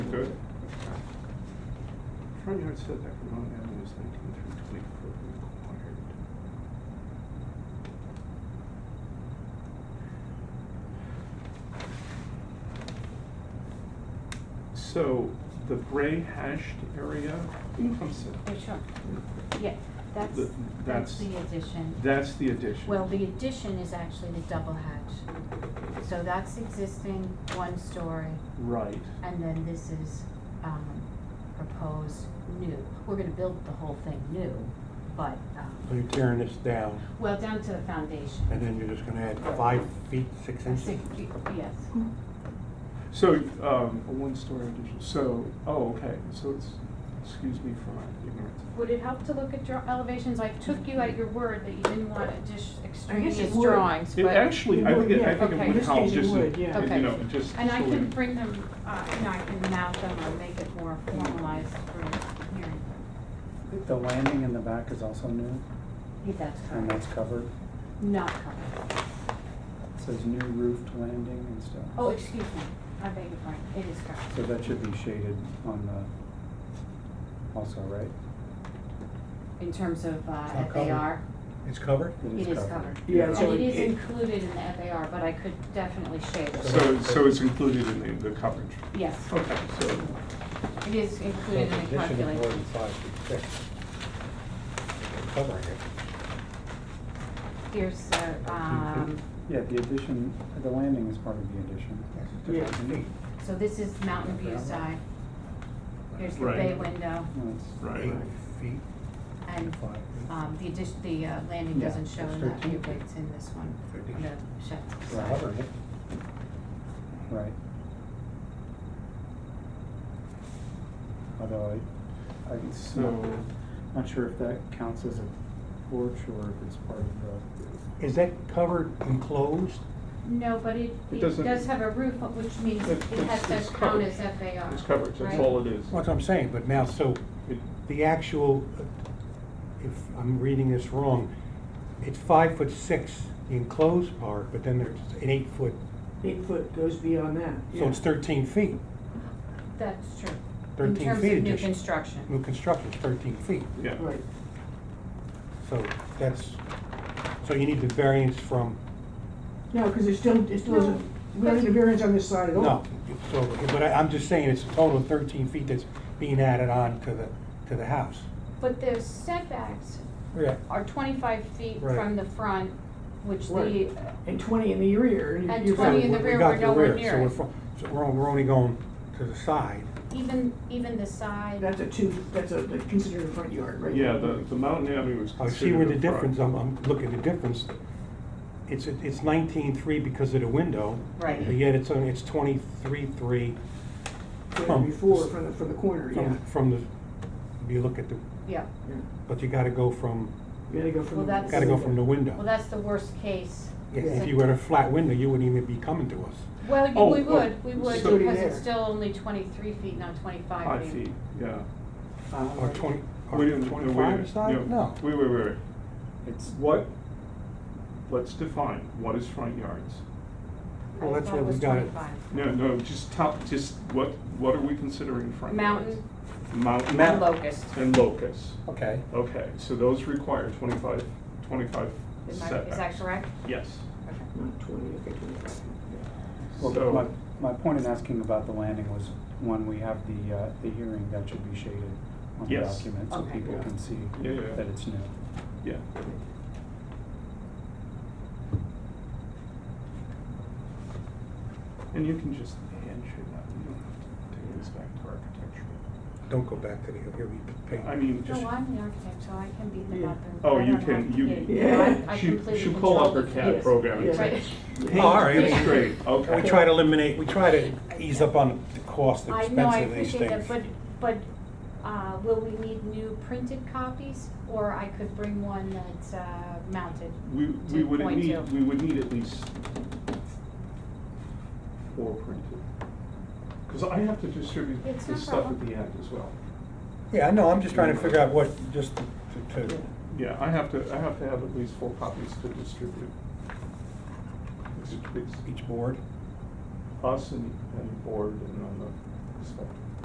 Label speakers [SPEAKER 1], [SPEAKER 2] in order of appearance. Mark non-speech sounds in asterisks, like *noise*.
[SPEAKER 1] Road?
[SPEAKER 2] Front yard setback from Mount Avenue is nineteen through twenty foot required. So the gray hashed area becomes,
[SPEAKER 3] Yeah, Oh, sure. Yeah, that's,
[SPEAKER 2] The-
[SPEAKER 3] that's
[SPEAKER 2] that's-
[SPEAKER 3] the addition.
[SPEAKER 2] that's the addition.
[SPEAKER 3] Well, the addition is actually the double hatch. So that's existing one story,
[SPEAKER 2] Right,
[SPEAKER 3] and then this is, um, proposed new. We're gonna build the whole thing new, but,
[SPEAKER 4] So you're
[SPEAKER 3] um,
[SPEAKER 4] tearing this down,
[SPEAKER 3] well, down to the foundation.
[SPEAKER 4] and then you're just gonna add five feet, six
[SPEAKER 3] A
[SPEAKER 4] inches?
[SPEAKER 3] six- Yes,
[SPEAKER 2] so, um, a one-story addition, so, oh, okay, so it's, excuse me for my ignorance.
[SPEAKER 5] Would it help to look at your elevations? I took you at your word that you didn't want just extraneous
[SPEAKER 6] would.
[SPEAKER 5] drawings,
[SPEAKER 2] It
[SPEAKER 5] but.
[SPEAKER 2] actually, I think, it- I
[SPEAKER 6] Yeah,
[SPEAKER 2] think
[SPEAKER 5] okay.
[SPEAKER 2] it
[SPEAKER 5] In
[SPEAKER 2] would
[SPEAKER 5] this
[SPEAKER 2] help,
[SPEAKER 6] case it
[SPEAKER 2] just,
[SPEAKER 6] would,
[SPEAKER 2] in-
[SPEAKER 6] yeah.
[SPEAKER 2] you
[SPEAKER 5] Okay.
[SPEAKER 2] know, just.
[SPEAKER 5] And I
[SPEAKER 2] so we-
[SPEAKER 5] can bring them, uh, you know, I can mount them or make it more formalized for hearing.
[SPEAKER 7] The landing in the back is also new,
[SPEAKER 3] if that's
[SPEAKER 7] and
[SPEAKER 3] correct.
[SPEAKER 7] that's covered.
[SPEAKER 3] Not correct.
[SPEAKER 7] It says new roofed landing and stuff.
[SPEAKER 3] Oh, excuse me, I beg your pardon, it is correct.
[SPEAKER 7] So that should be shaded on the, also, right?
[SPEAKER 3] In terms of, uh,
[SPEAKER 4] It's not
[SPEAKER 3] FAR.
[SPEAKER 4] It's covered?
[SPEAKER 3] It is covered.
[SPEAKER 6] Yeah,
[SPEAKER 3] And
[SPEAKER 6] so
[SPEAKER 3] it is
[SPEAKER 6] it-
[SPEAKER 3] included in the FAR, but I could definitely shade it.
[SPEAKER 2] So, so it's included in the, the coverage?
[SPEAKER 3] Yes,
[SPEAKER 2] Okay, so,
[SPEAKER 3] it is included in the
[SPEAKER 4] Addition is more than
[SPEAKER 3] calculation.
[SPEAKER 4] five feet, six. Covering it.
[SPEAKER 3] Here's, uh, um,
[SPEAKER 7] Yeah, the addition, the landing is part of the addition.
[SPEAKER 6] Yeah.
[SPEAKER 4] Neat.
[SPEAKER 3] so this is Mountain View side. Here's the
[SPEAKER 2] Right.
[SPEAKER 3] bay window,
[SPEAKER 7] No, it's-
[SPEAKER 2] right,
[SPEAKER 4] Eight feet,
[SPEAKER 3] and,
[SPEAKER 4] five feet.
[SPEAKER 3] um, the addition, the, uh, landing
[SPEAKER 7] Yeah,
[SPEAKER 3] doesn't show
[SPEAKER 4] it's
[SPEAKER 3] in that view,
[SPEAKER 4] 13.
[SPEAKER 3] but it's in this one, on the shed
[SPEAKER 4] We're
[SPEAKER 3] side.
[SPEAKER 4] Covering it.
[SPEAKER 7] Right. Although I, I'm
[SPEAKER 2] so,
[SPEAKER 7] not sure if that counts as a porch or if it's part of the.
[SPEAKER 4] Is that covered enclosed?
[SPEAKER 5] No, but it,
[SPEAKER 2] It
[SPEAKER 5] it
[SPEAKER 2] doesn't-
[SPEAKER 5] does have a roof, which means it
[SPEAKER 2] It's-
[SPEAKER 5] has
[SPEAKER 2] it's
[SPEAKER 5] to count
[SPEAKER 2] covered.
[SPEAKER 5] as FAR.
[SPEAKER 2] it's coverage, that's
[SPEAKER 5] right?
[SPEAKER 2] all it is.
[SPEAKER 4] That's what I'm saying, but now, so
[SPEAKER 2] It-
[SPEAKER 4] the actual, uh, if I'm reading this wrong, it's five foot six, the enclosed part, but then there's an eight foot,
[SPEAKER 6] Eight foot goes beyond that,
[SPEAKER 4] so it's thirteen feet.
[SPEAKER 5] That's true.
[SPEAKER 4] 13 feet
[SPEAKER 5] In terms of new
[SPEAKER 4] addition.
[SPEAKER 5] construction.
[SPEAKER 4] New construction's thirteen feet.
[SPEAKER 2] Yeah,
[SPEAKER 6] Right,
[SPEAKER 4] So that's, so you need the variance from,
[SPEAKER 6] no, because it still, it still
[SPEAKER 5] No,
[SPEAKER 6] isn't, we don't need a variance on this side at all.
[SPEAKER 4] no, so, but I, I'm just saying it's a total of thirteen feet that's being added on to the, to the house.
[SPEAKER 5] But the setbacks
[SPEAKER 4] Yeah.
[SPEAKER 5] are twenty-five feet
[SPEAKER 4] Right.
[SPEAKER 5] from the front, which the,
[SPEAKER 6] Right. And twenty in the rear. and
[SPEAKER 5] And
[SPEAKER 6] you're
[SPEAKER 4] So
[SPEAKER 5] 20 in the
[SPEAKER 4] we-
[SPEAKER 5] rear,
[SPEAKER 4] we got
[SPEAKER 5] we're
[SPEAKER 4] the
[SPEAKER 5] nowhere
[SPEAKER 4] rear,
[SPEAKER 5] near
[SPEAKER 4] so
[SPEAKER 5] it.
[SPEAKER 4] we're fro- So we're, on- we're only going to the side.
[SPEAKER 5] even, even the side.
[SPEAKER 6] That's a two, that's a, that's considered a front yard, right?
[SPEAKER 2] yeah, the, the Mountain Avenue is
[SPEAKER 4] I
[SPEAKER 2] considered
[SPEAKER 4] see where the
[SPEAKER 2] a front.
[SPEAKER 4] difference, I'm, I'm looking at the difference. It's, it's nineteen-three because of the window,
[SPEAKER 3] Right.
[SPEAKER 4] but yet it's, only- it's twenty-three-three
[SPEAKER 6] From Before, from the, from the corner, yeah.
[SPEAKER 4] from, from the, if you look at the,
[SPEAKER 3] Yeah,
[SPEAKER 6] Yeah.
[SPEAKER 4] but you gotta go from,
[SPEAKER 6] You gotta go from.
[SPEAKER 3] Well,
[SPEAKER 6] the-
[SPEAKER 3] that's-
[SPEAKER 4] gotta go from the window.
[SPEAKER 3] well, that's the worst case.
[SPEAKER 4] Yeah, If you had a flat window, you wouldn't even be coming to us.
[SPEAKER 5] Well, you-
[SPEAKER 2] Oh,
[SPEAKER 5] we
[SPEAKER 2] well,
[SPEAKER 5] would, we would,
[SPEAKER 2] so-
[SPEAKER 5] because
[SPEAKER 6] There.
[SPEAKER 5] it's still only twenty-three feet, not twenty-five
[SPEAKER 2] Five
[SPEAKER 5] feet.
[SPEAKER 2] feet, yeah.
[SPEAKER 6] Uh,
[SPEAKER 4] Or twenty,
[SPEAKER 2] We
[SPEAKER 4] or
[SPEAKER 2] didn't- no, wait a
[SPEAKER 4] twenty-five
[SPEAKER 2] minute,
[SPEAKER 4] aside? No.
[SPEAKER 2] Wait, wait, wait, wait.
[SPEAKER 7] It's
[SPEAKER 2] What, let's define, what is front yards?
[SPEAKER 4] Well,
[SPEAKER 3] I
[SPEAKER 4] that's
[SPEAKER 3] thought
[SPEAKER 4] what
[SPEAKER 3] it
[SPEAKER 4] we
[SPEAKER 3] was
[SPEAKER 4] got it.
[SPEAKER 3] 25.
[SPEAKER 2] No, no, just top, just what, what are we considering front yards?
[SPEAKER 5] Mountain,
[SPEAKER 2] Mountain.
[SPEAKER 4] Mount-
[SPEAKER 5] locust.
[SPEAKER 2] And locus.
[SPEAKER 4] Okay.
[SPEAKER 2] Okay, so those require 25 25
[SPEAKER 3] Is that- is that
[SPEAKER 2] setbacks.
[SPEAKER 3] correct?
[SPEAKER 2] Yes.
[SPEAKER 3] Okay.
[SPEAKER 6] Twenty, okay, twenty-five.
[SPEAKER 7] Well,
[SPEAKER 2] So-
[SPEAKER 7] my, my point in asking about the landing was, when we have the, uh, the hearing, that should be shaded on the
[SPEAKER 2] Yes.
[SPEAKER 7] document, so
[SPEAKER 3] Okay.
[SPEAKER 7] people
[SPEAKER 2] Yeah.
[SPEAKER 7] can see
[SPEAKER 2] Yeah, yeah, yeah.
[SPEAKER 7] that it's new.
[SPEAKER 2] Yeah. And you can just handshake that, you don't have to take this back to architecture.
[SPEAKER 4] Don't go back to the, here we paint.
[SPEAKER 2] I mean, just,
[SPEAKER 3] No, I'm the architect, so I can be the
[SPEAKER 6] Yeah.
[SPEAKER 3] mother.
[SPEAKER 2] Oh,
[SPEAKER 3] I
[SPEAKER 2] you
[SPEAKER 3] don't have
[SPEAKER 2] can-
[SPEAKER 3] to
[SPEAKER 2] you-
[SPEAKER 3] be- you know, I- I
[SPEAKER 2] She-
[SPEAKER 3] completely
[SPEAKER 2] she'll call up her
[SPEAKER 3] control the
[SPEAKER 2] CAD
[SPEAKER 3] kids.
[SPEAKER 2] program
[SPEAKER 6] and
[SPEAKER 3] Right.
[SPEAKER 4] Oh, all right.
[SPEAKER 2] paint straight,
[SPEAKER 4] *laughs*
[SPEAKER 3] *laughs*
[SPEAKER 4] We
[SPEAKER 2] okay.
[SPEAKER 4] try to eliminate, we try to ease up on the cost, the
[SPEAKER 3] I know,
[SPEAKER 4] expense
[SPEAKER 3] I
[SPEAKER 4] of these
[SPEAKER 3] appreciate that,
[SPEAKER 4] things.
[SPEAKER 3] but, but, uh, will we need new printed copies? Or I could bring one that's, uh, mounted?
[SPEAKER 2] We, we would
[SPEAKER 3] 2.2.
[SPEAKER 2] need, we would need at least four printed. Because I have to distribute
[SPEAKER 3] It's no
[SPEAKER 2] this stuff at
[SPEAKER 3] problem.
[SPEAKER 2] the end as well.
[SPEAKER 4] Yeah, I know, I'm just trying to figure out what, just to- to,
[SPEAKER 2] Yeah, I have to, I have to have at least four copies to distribute. It's- it's
[SPEAKER 4] each board.
[SPEAKER 2] us and, and the board and on the inspector.